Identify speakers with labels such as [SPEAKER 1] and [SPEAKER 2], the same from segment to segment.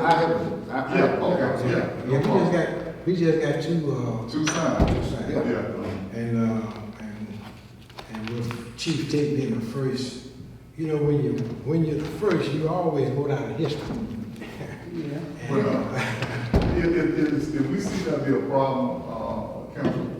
[SPEAKER 1] I haven't, I, I,
[SPEAKER 2] Yeah,
[SPEAKER 1] okay,
[SPEAKER 2] yeah,
[SPEAKER 1] yeah,
[SPEAKER 3] Yeah,
[SPEAKER 1] no
[SPEAKER 3] we just
[SPEAKER 1] problem.
[SPEAKER 3] got, we just got two,
[SPEAKER 1] Two signs,
[SPEAKER 3] Two signs.
[SPEAKER 1] yeah.
[SPEAKER 2] Yeah.
[SPEAKER 3] uh, and, uh, and, and with Chief Tate being the first, you know, when you, when you're the first, you always go down in history.
[SPEAKER 2] Well,
[SPEAKER 3] And,
[SPEAKER 2] If, if, if, it's- if we see that be a problem, uh, council,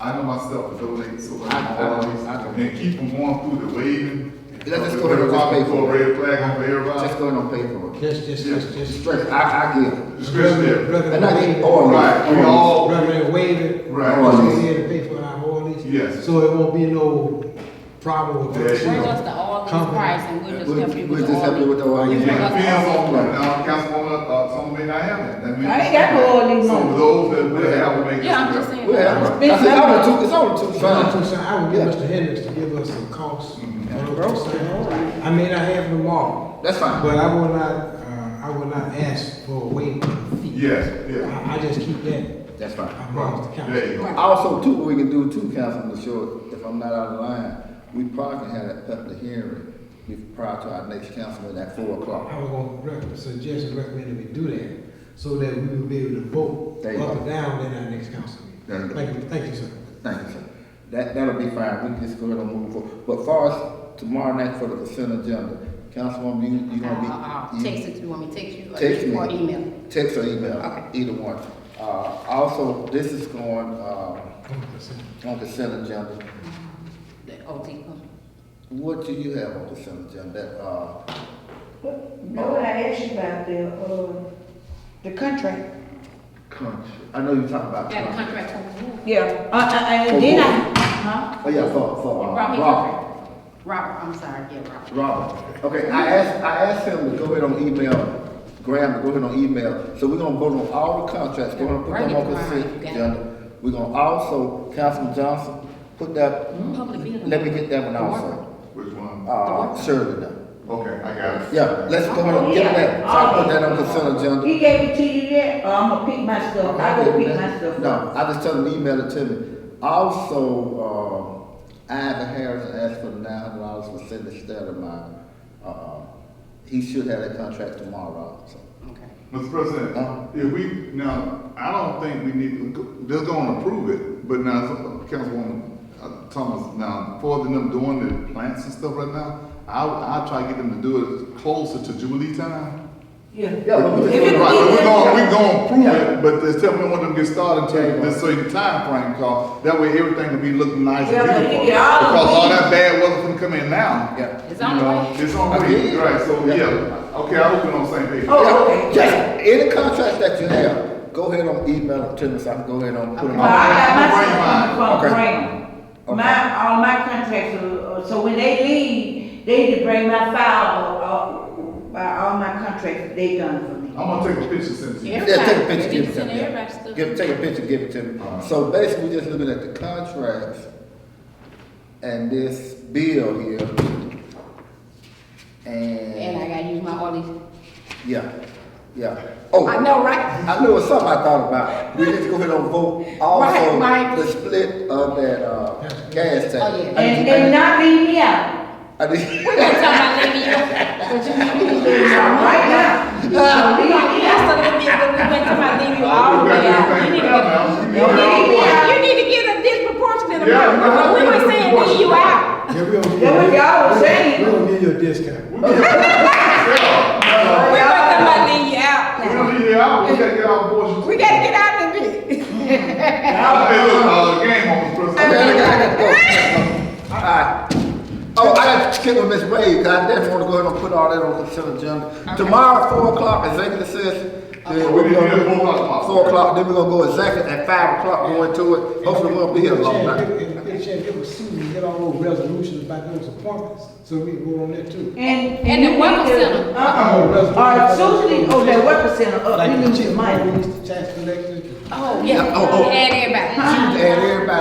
[SPEAKER 2] I know myself to donate so much
[SPEAKER 1] I- I-
[SPEAKER 2] always,
[SPEAKER 1] I-
[SPEAKER 2] and keep them going through the waving.
[SPEAKER 1] Let's just go ahead and just pay
[SPEAKER 2] Throw
[SPEAKER 1] for
[SPEAKER 2] a red flag over
[SPEAKER 1] Just
[SPEAKER 2] everybody.
[SPEAKER 1] go ahead and pay for it.
[SPEAKER 3] Just, just, just, just.
[SPEAKER 1] Straight, I, I get it.
[SPEAKER 2] Discretionary.
[SPEAKER 1] And I get
[SPEAKER 3] Reverend
[SPEAKER 1] all that.
[SPEAKER 2] Right, we all-
[SPEAKER 3] Reverend Wade,
[SPEAKER 2] Oh, Right.
[SPEAKER 3] she's here to pay for our ordinance.
[SPEAKER 2] Yes.
[SPEAKER 3] So it won't be no problem with
[SPEAKER 2] There you
[SPEAKER 3] that.
[SPEAKER 2] go.
[SPEAKER 4] Bring us the all these
[SPEAKER 3] Company.
[SPEAKER 4] price and we'll just help you
[SPEAKER 1] We'll
[SPEAKER 4] with
[SPEAKER 1] just
[SPEAKER 4] the
[SPEAKER 1] help you
[SPEAKER 4] all
[SPEAKER 1] with
[SPEAKER 4] these.
[SPEAKER 1] the all
[SPEAKER 2] It
[SPEAKER 1] these.
[SPEAKER 4] Yeah.
[SPEAKER 2] depends on, now, Councilwoman, uh, some may not have it. That means-
[SPEAKER 5] I ain't got no all these
[SPEAKER 2] So
[SPEAKER 5] numbers.
[SPEAKER 2] those that will have, will make it.
[SPEAKER 4] Yeah, I'm just saying.
[SPEAKER 1] Well,
[SPEAKER 4] that.
[SPEAKER 1] I said, I want two, it's only two
[SPEAKER 3] Trying to
[SPEAKER 1] signs.
[SPEAKER 3] say, I would give Mr. Hendricks to give us some costs. on
[SPEAKER 2] Mm-hmm.
[SPEAKER 3] those two signs. I may not have them all,
[SPEAKER 1] That's fine.
[SPEAKER 3] but I will not, uh, I will not ask for a waiver fee.
[SPEAKER 2] Yes, yes.
[SPEAKER 3] I, I just keep that,
[SPEAKER 1] That's fine.
[SPEAKER 3] I promise the council.
[SPEAKER 2] There you go.
[SPEAKER 1] Also, too, what we can do too, Councilman Short, if I'm not out of line, we probably can have that public hearing be- prior to our next council meeting at four o'clock.
[SPEAKER 3] I was gonna rec- suggest and recommend that we do that, so that we will be able to vote
[SPEAKER 1] There you
[SPEAKER 3] up
[SPEAKER 1] go.
[SPEAKER 3] and down in our next council
[SPEAKER 1] There you
[SPEAKER 3] meeting.
[SPEAKER 1] go.
[SPEAKER 3] Thank you, thank you, sir.
[SPEAKER 1] Thank you, sir. That, that'll be fine, we can just go ahead and move forward. But far as tomorrow night for the consent agenda, Councilwoman, you, you gonna be?
[SPEAKER 4] I'll, I'll
[SPEAKER 1] you-
[SPEAKER 4] Uh, text it, you want me to text you? or
[SPEAKER 1] Text me.
[SPEAKER 4] Or email.
[SPEAKER 1] Text or email,
[SPEAKER 4] Okay.
[SPEAKER 1] either one. Uh, also, this is going, uh,
[SPEAKER 3] Come on, sir.
[SPEAKER 1] on consent agenda.
[SPEAKER 4] The OT company.
[SPEAKER 1] What do you have on consent agenda? Uh,
[SPEAKER 5] No, I asked you about the, uh, the contract.
[SPEAKER 1] country, I know you're talking about.
[SPEAKER 4] Yeah, the
[SPEAKER 1] country.
[SPEAKER 4] contract company.
[SPEAKER 5] Yeah, uh, uh, and then I, huh?
[SPEAKER 1] Oh, yeah, for, for, uh,
[SPEAKER 4] Robert,
[SPEAKER 1] Robert.
[SPEAKER 4] Robert, Robert, I'm sorry, yeah, Robert.
[SPEAKER 1] Robert. Okay, I asked, I asked him to go ahead on email, Graham to go ahead on email. So we're gonna go on all the contracts, go on, put them on consent agenda. We're gonna also, Councilman Johnson, put that,
[SPEAKER 4] Public building.
[SPEAKER 1] Hmm? let me get that one also.
[SPEAKER 2] Which one?
[SPEAKER 1] Uh, Shirley now.
[SPEAKER 2] Okay, I got it.
[SPEAKER 1] Yeah, let's go ahead and get that. So I put that on consent agenda.
[SPEAKER 5] He gave it to you yet? Or I'm gonna Uh, pick my stuff, I go pick my stuff.
[SPEAKER 1] No, I just tell them, email it to me. Also, uh, Ivan Harris asked for nine hundred dollars for Cindy Stedemeyer. Uh, he should have that contract tomorrow, so.
[SPEAKER 4] Okay.
[SPEAKER 2] Mr.
[SPEAKER 1] Uh-huh.
[SPEAKER 2] President, if we, now, I don't think we need, to they're gonna approve it, but now, Councilwoman uh, Thomas, now, for them doing the plants and stuff right now, I, I try to get them to do it closer to Jubilee time.
[SPEAKER 5] Yeah.
[SPEAKER 1] Yeah, but we
[SPEAKER 5] If
[SPEAKER 1] just-
[SPEAKER 5] it
[SPEAKER 2] Right, but we're gonna,
[SPEAKER 5] be-
[SPEAKER 2] we're gonna approve
[SPEAKER 1] Yeah.
[SPEAKER 2] it, but just tell me when them get started
[SPEAKER 1] Yeah, yeah.
[SPEAKER 2] until this certain time frame, cause that way everything will be looking nice
[SPEAKER 5] Yeah,
[SPEAKER 2] and
[SPEAKER 5] but you
[SPEAKER 2] beautiful.
[SPEAKER 5] get all the
[SPEAKER 2] Because all
[SPEAKER 5] weeds.
[SPEAKER 2] that bad weather can come in now.
[SPEAKER 1] Yeah.
[SPEAKER 4] It's
[SPEAKER 2] You
[SPEAKER 4] on the
[SPEAKER 2] know,
[SPEAKER 4] way.
[SPEAKER 2] It's on the
[SPEAKER 1] Okay.
[SPEAKER 2] way, right, so,
[SPEAKER 1] Yeah.
[SPEAKER 2] yeah, okay, I hope we're on the same page.
[SPEAKER 5] Oh, okay.
[SPEAKER 1] Yes, any contract that you have, go ahead on email it to me, so I can go ahead on put them
[SPEAKER 5] Well,
[SPEAKER 1] on.
[SPEAKER 5] I got my
[SPEAKER 2] Bring
[SPEAKER 5] stuff
[SPEAKER 1] mine.
[SPEAKER 5] from
[SPEAKER 1] Okay.
[SPEAKER 5] Graham.
[SPEAKER 1] Okay.
[SPEAKER 5] My, all my contracts, are- uh, so when they leave, they need to bring my file, uh, by all my contracts they done for me.
[SPEAKER 2] I'm gonna take a picture since.
[SPEAKER 4] Yeah.
[SPEAKER 1] Yeah, take a picture,
[SPEAKER 4] Everybody,
[SPEAKER 1] give it to me.
[SPEAKER 4] send
[SPEAKER 1] yeah.
[SPEAKER 4] everybody's stuff.
[SPEAKER 1] Give, take a picture, give it to me.
[SPEAKER 2] Alright.
[SPEAKER 1] So basically, we're just looking at the contracts and this bill here.
[SPEAKER 4] And I
[SPEAKER 1] And,
[SPEAKER 4] gotta use my all these.
[SPEAKER 1] yeah, yeah. Oh,
[SPEAKER 4] I know, right?
[SPEAKER 1] I knew it was something I thought about. We need to go ahead and vote
[SPEAKER 4] Right,
[SPEAKER 1] also
[SPEAKER 4] right.
[SPEAKER 1] the split of that, uh, gas tax.
[SPEAKER 4] Oh,
[SPEAKER 1] I
[SPEAKER 4] yeah.
[SPEAKER 5] And,
[SPEAKER 1] need-
[SPEAKER 5] and not leave me out,
[SPEAKER 1] I need-
[SPEAKER 4] We gotta talk about letting you, but you need to leave me out.
[SPEAKER 5] right now. You
[SPEAKER 1] Uh,
[SPEAKER 5] gonna leave me
[SPEAKER 4] That's
[SPEAKER 5] out.
[SPEAKER 4] a little bit, but we went to my leave you all the
[SPEAKER 2] We
[SPEAKER 4] way
[SPEAKER 2] got
[SPEAKER 4] out. You
[SPEAKER 2] everything
[SPEAKER 4] need to
[SPEAKER 2] planned
[SPEAKER 4] get-
[SPEAKER 2] now. You
[SPEAKER 5] You
[SPEAKER 2] got it all planned.
[SPEAKER 4] You need
[SPEAKER 5] need me out.
[SPEAKER 4] to get a disproportionate
[SPEAKER 2] Yeah,
[SPEAKER 4] amount, but we
[SPEAKER 2] yeah,
[SPEAKER 4] were saying leave you out.
[SPEAKER 3] Yeah, we don't.
[SPEAKER 5] That what y'all was saying.
[SPEAKER 3] We don't give you a discount.
[SPEAKER 4] We were talking about leave you out
[SPEAKER 2] We
[SPEAKER 4] now.
[SPEAKER 2] don't need the hour, we gotta get our abortion.
[SPEAKER 4] We gotta get out of here.
[SPEAKER 2] Hey, look, uh, game on, Mr.
[SPEAKER 1] Okay, I
[SPEAKER 2] President.
[SPEAKER 1] got- I got to go. Alright. Oh, I got to kick with Miss Wade, 'cause I definitely wanna go ahead and put all that on the consent agenda. Tomorrow, four o'clock, executive session. Then
[SPEAKER 2] We
[SPEAKER 1] we're
[SPEAKER 2] need
[SPEAKER 1] gonna
[SPEAKER 2] to
[SPEAKER 1] do
[SPEAKER 2] be at four o'clock.
[SPEAKER 1] four o'clock, then we're gonna go executive at five o'clock, go into it. Hopefully, we won't be here long
[SPEAKER 3] Chad,
[SPEAKER 1] night.
[SPEAKER 3] give- and- and Chad, give us Susan, get all those resolutions about those appointments, so we can go on that too.
[SPEAKER 5] And.
[SPEAKER 4] And the
[SPEAKER 5] you
[SPEAKER 4] welcome
[SPEAKER 5] need to-
[SPEAKER 4] center.
[SPEAKER 3] Oh,
[SPEAKER 5] Uh-uh.
[SPEAKER 3] resolution.
[SPEAKER 5] All right, Susan, oh, that welcome center up,
[SPEAKER 3] Like
[SPEAKER 5] we
[SPEAKER 3] the
[SPEAKER 5] need your
[SPEAKER 3] chip,
[SPEAKER 5] money.
[SPEAKER 3] we used to tax collectors.
[SPEAKER 4] Oh, yeah.
[SPEAKER 1] Oh, oh.
[SPEAKER 4] Add everybody.
[SPEAKER 1] And everybody.